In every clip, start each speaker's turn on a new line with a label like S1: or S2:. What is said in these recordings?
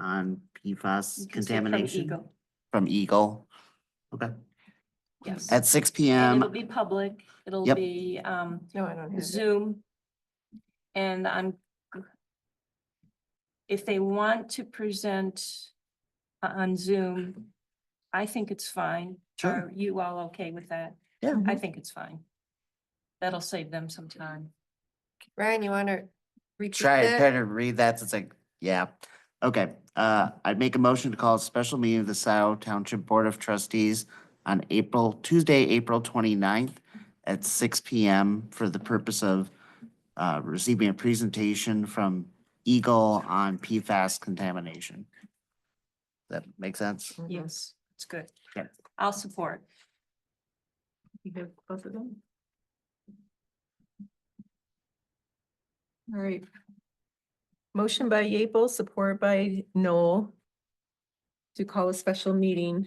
S1: on PFAS
S2: can say from
S1: contamination
S2: Eagle.
S1: from Eagle. Okay,
S2: Yes.
S1: at six P
S2: And It'll
S1: M.
S2: be public, it'll
S1: Yep.
S2: be um
S3: No, I don't have it.
S2: Zoom. And I'm. g- If they want to present o- on Zoom, I think it's fine.
S1: Sure, Mm-hmm.
S2: Are you all okay with that?
S1: Yeah.
S2: I think it's fine. That'll save them some time.
S3: Ryan, you wanna repeat
S1: try, try
S3: that?
S1: to read that, it's like, yeah. Okay, uh, I'd make a motion to call a special meeting of the Scioto Township Board of Trustees on April, Tuesday, April 29th at six P M for the purpose of uh, receiving a presentation from Eagle on PFAS contamination. That make sense?
S3: Mhm.
S2: Yes, it's good.
S1: Okay.
S2: I'll support.
S4: You have both of them? All right. Motion by Yeaple, support by Noel to call a special meeting.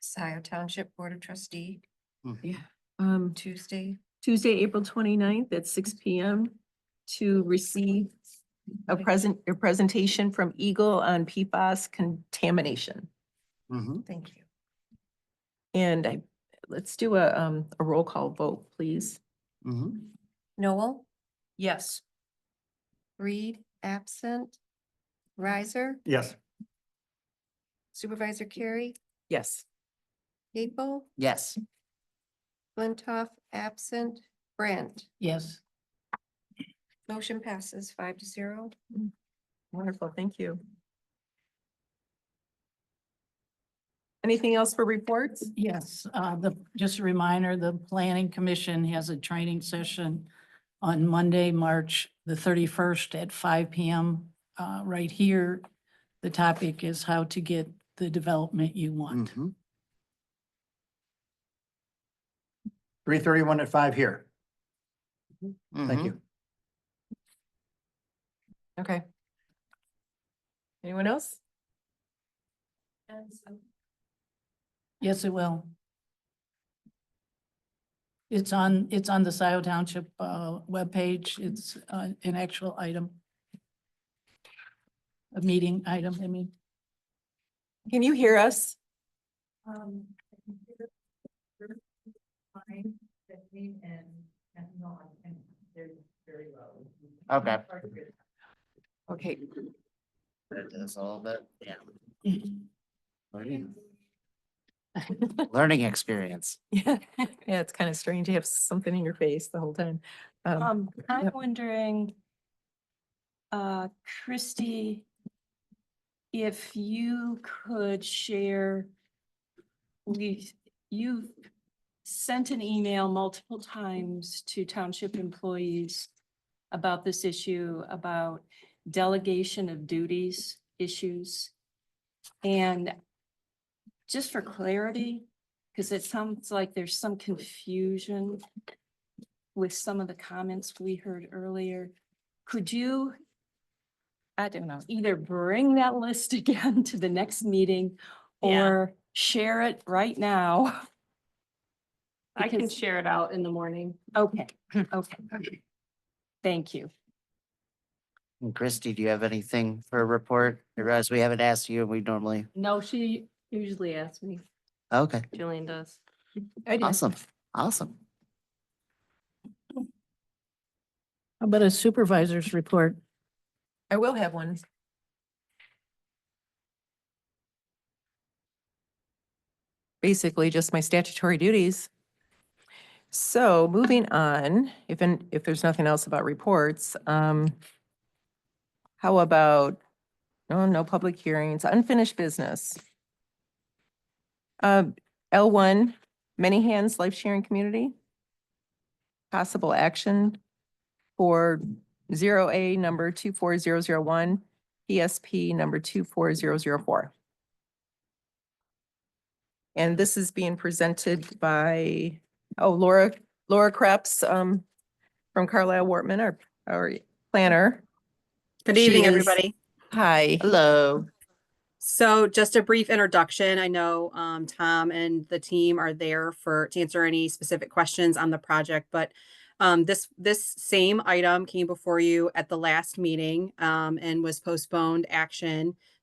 S3: Scioto Township Board of Trustee,
S4: Um,
S3: Tuesday.
S4: Tuesday, April 29th at six P M to receive a present, a presentation from Eagle on PFAS contamination.
S1: Mhm.
S3: Thank you.
S4: And I, let's do a, um, a roll call vote, please.
S1: Mhm.
S3: Noel,
S2: Yes.
S3: Reed, absent. Riser,
S5: Yes.
S3: Supervisor Carey,
S4: Yes.
S3: Gable,
S1: Yes.
S3: Flintoff, absent. Brandt,
S2: Yes.
S3: motion passes five to zero.
S4: Wonderful, thank you. Anything else for reports?
S6: Yes, uh, the, just a reminder, the planning commission has a training session on Monday, March the thirty-first at five PM, uh, right here. The topic is how to get the development you want.
S1: Mhm.
S5: Three thirty-one at five here. Thank
S1: Mhm.
S5: you.
S4: Okay. Anyone else?
S6: Yes, it will. It's on, it's on the Scioto Township, uh, webpage. It's, uh, an actual item. A meeting item, I mean.
S4: Can you hear us?
S6: Um. Fine, fifteen and, and non, and they're very low.
S1: Mm-hmm. Okay.
S4: Okay,
S1: That is all of it, yeah. Learning learning experience.
S4: yeah, it's kind of strange to have something in your face the whole time. Um,
S2: Um, I'm
S4: Yep.
S2: wondering, uh, Christie, if you could share, we, you've sent an email multiple times to township employees about this issue, about delegation of duties issues. And just for clarity, because it sounds like there's some confusion with some of the comments we heard earlier. Could you, I don't know, either bring that list again to the next meeting
S7: Yeah.
S2: or share it right now?
S7: I can
S2: because-
S7: share it out in the morning.
S2: Okay, okay. Thank you.
S1: And Christy, do you have anything for a report? I realize we haven't asked you, and we normally,
S7: No, she usually asks me.
S1: okay,
S7: Jillian does.
S4: I did-
S1: awesome, awesome.
S6: How about a supervisor's report?
S4: I will have one. Basically, just my statutory duties. So moving on, if, an- if there's nothing else about reports, um, how about, no, no public hearings, unfinished business. Uh, L one, Many Hands Life Sharing Community. Possible action for zero A number two four zero zero one, PSP number two four zero zero four. And this is being presented by, oh, Laura, Laura Krebs, um, from Carlisle Wortman, our, our planner.
S8: Good
S4: She
S8: evening,
S4: is-
S8: everybody.
S4: Hi.
S1: Hello.
S8: So just a brief introduction. I know um, Tom and the team are there for to answer any specific questions on the project, but um, this this same item came before you at the last meeting um, and was postponed action